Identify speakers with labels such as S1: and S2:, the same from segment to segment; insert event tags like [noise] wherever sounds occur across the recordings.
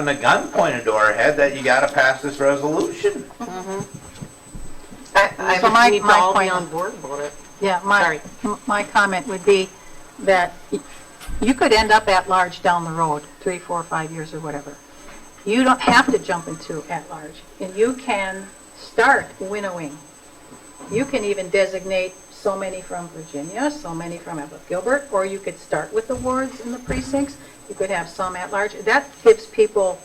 S1: And the gun pointed to our head that you gotta pass this resolution.
S2: I,
S3: So
S2: I
S3: my-
S2: would need to
S3: my
S2: all be
S3: point-
S2: on board with it.
S3: Yeah, my,
S2: Sorry.
S3: m- my comment would be that y- you could end up at large down the road, three, four, five years or whatever. You don't have to jump into at large, and you can start winnowing. You can even designate so many from Virginia, so many from Everett Gilbert, or you could start with the wards and the precincts. You could have some at large. That gives people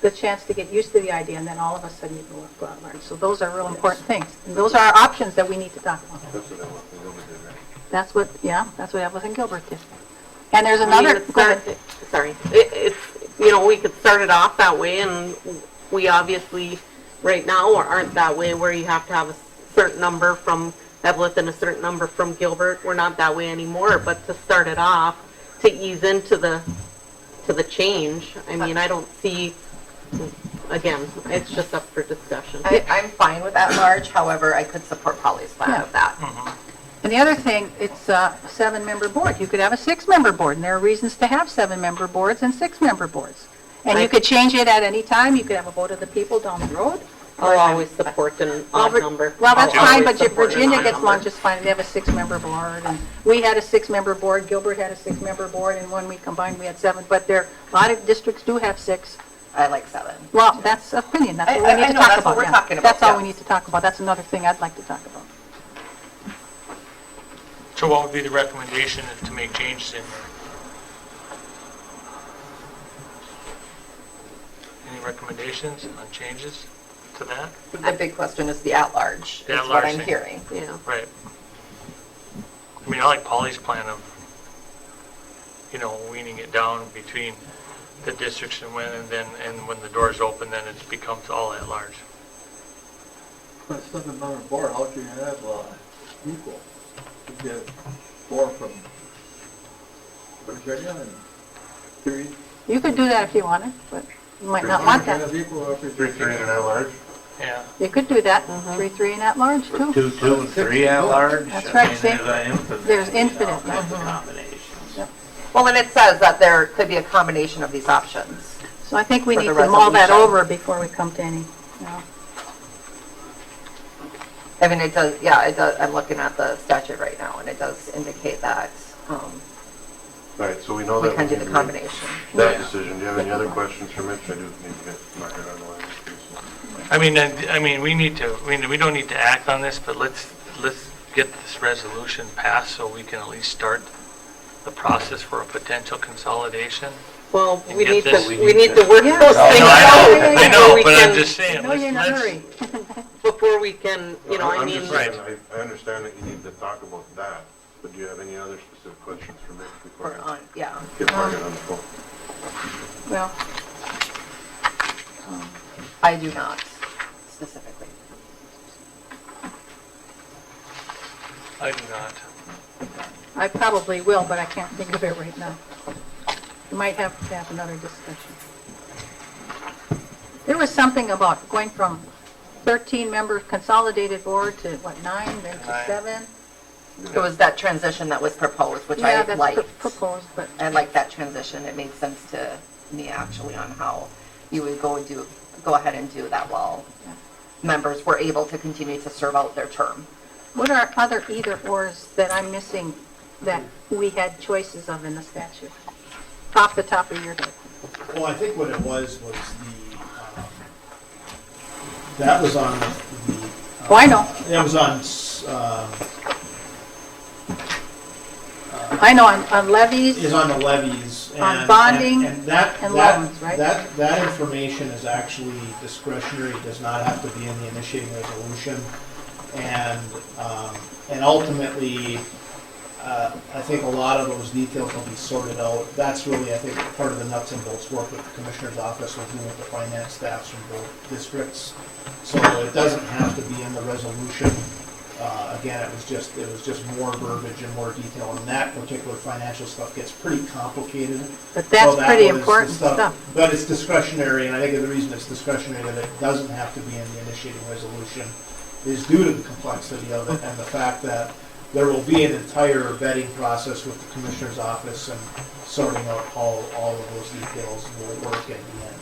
S3: the chance to get used to the idea, and then all of a sudden you go go at large. So those are real important things. And those are our options that we need to talk about. That's what, yeah, that's what Evelyn Gilbert did. And there's
S2: I mean,
S3: another,
S2: it's
S3: go
S2: not-
S3: ahead.
S2: Sorry. It, it's, you know, we could start it off that way and we obviously, right now, aren't that way where you have to have a certain number from Evelyn and a certain number from Gilbert. We're not that way anymore, but to start it off, to ease into the, to the change, I mean, I don't see, again, it's just up for discussion.
S4: I, I'm fine with at large, however, I could support Polly's plan of that.
S3: and the other thing, it's a seven-member board. You could have a six-member board, and there are reasons to have seven-member boards and six-member boards. And you
S2: Right.
S3: could change it at any time, you could have a vote of the people down the road.
S2: I'll always support an Oh, odd
S3: Well,
S2: number.
S3: Well, that's
S2: I'll
S3: fine,
S2: always
S3: but your
S2: support an
S3: Virginia
S2: odd
S3: gets
S2: number.
S3: along just fine, they have a six-member board, and we had a six-member board, Gilbert had a six-member board, and when we combined, we had seven, but there, a lot of districts do have six.
S4: I like seven.
S3: Well, that's opinion, that's
S4: I-
S3: what we
S4: I- I
S3: need to
S4: know,
S3: talk about.
S4: that's what we're
S3: yeah.
S4: talking about,
S3: That's all we
S4: yeah.
S3: need to talk about, that's another thing I'd like to talk about.
S5: So what would be the recommendation if to make changes in there? Any recommendations on changes to that?
S4: The big question is the at large,
S5: The
S4: is what
S5: at-large
S4: I'm
S5: thing.
S4: hearing.
S2: Yeah.
S5: Right. I mean, I like Polly's plan of, you know, weaning it down between the districts and when, and then, and when the doors open, then it becomes all at large.
S6: But stepping down the board, how can you have, uh, equal? You get four from Virginia and three.
S3: You could do that if you wanted, but you might not want
S6: You
S3: that.
S6: have equal representation.
S7: large?
S5: Yeah.
S3: You could do that,
S4: Mm-hmm.
S3: three, three, and at-large, too.
S1: Two, two, and three at large.
S3: That's
S1: I
S3: right,
S1: mean,
S3: see?
S1: There's an infinite.
S3: There's
S1: you know,
S3: infinite,
S1: type of combinations.
S4: Well, and it says that there could be a combination of these options.
S3: So I think we
S4: For
S3: need
S4: the
S3: to mull that
S4: resolution.
S3: over before we come to any, you know.
S4: I mean, it does, yeah, it does, I'm looking at the statute right now, and it does indicate that, um,
S7: Right, so we know
S4: we
S7: Oh, that.
S4: can do
S7: need
S4: the
S7: to make
S4: combination.
S7: That decision. Do you have any other questions for Mitch? I do need to get my head on the line.
S5: I mean, I I mean, we need to, I mean, we don't need to act on this, but let's, let's get this resolution passed so we can at least start the process for a potential consolidation.
S2: Well,
S5: And
S2: we
S5: get
S2: need to,
S5: this-
S2: we need to work
S3: Yeah.
S2: those
S3: No,
S2: things
S5: No,
S2: out.
S5: I know, I
S2: before
S5: know,
S2: we
S5: but I'm
S2: can-
S5: just saying,
S3: No, you're
S5: let's,
S3: in a hurry. [laughs]
S5: let's,
S2: Before we can, you know, I
S7: I'm
S2: mean,
S7: just saying, I I understand that you need to talk about that, but do you have any other specific questions for Mitch
S4: Or
S7: before I
S4: on, yeah.
S7: get my head on the phone?
S3: Well,
S4: I do not specifically.
S5: I do not.
S3: I probably will, but I can't think of it right now. We might have to have another discussion. There was something about going from 13-member consolidated board to, what, nine, then to
S5: Nine.
S3: seven?
S4: It was that transition that was proposed, which I
S3: Yeah, that's
S4: liked.
S3: pr- proposed, but
S4: I like that transition. It made sense to me actually on how you would go and do, go ahead and do that while members were able to continue to serve out their term.
S3: What are other either-ors that I'm missing that we had choices of in the statute? Off the top of your head.
S8: Well, I think what it was, was the, um, that was on the. uh,
S3: Oh, I know.
S8: That was on, s- um,
S3: I know on on levies,
S8: is on the levies. and-
S3: On bonding
S8: And that,
S3: and loans,
S8: that,
S3: right?
S8: that, that information is actually discretionary, does not have to be in the initiating resolution. And, um, and ultimately, uh, I think a lot of those details will be sorted out. That's really, I think, part of the nuts and bolts work that the commissioner's office will do with the finance staffs from both districts. So it doesn't have to be in the resolution. Uh, Again, it was just, it was just more verbiage and more detail, and that particular financial stuff gets pretty complicated.
S3: but that's
S8: So that
S3: pretty
S8: was the
S3: important stuff.
S8: But it's discretionary, and I think the reason it's discretionary that it doesn't have to be in the initiating resolution is due to the complexity of it and the fact that there will be an entire vetting process with the commissioner's office and sorting out all, all of those details will work at the end.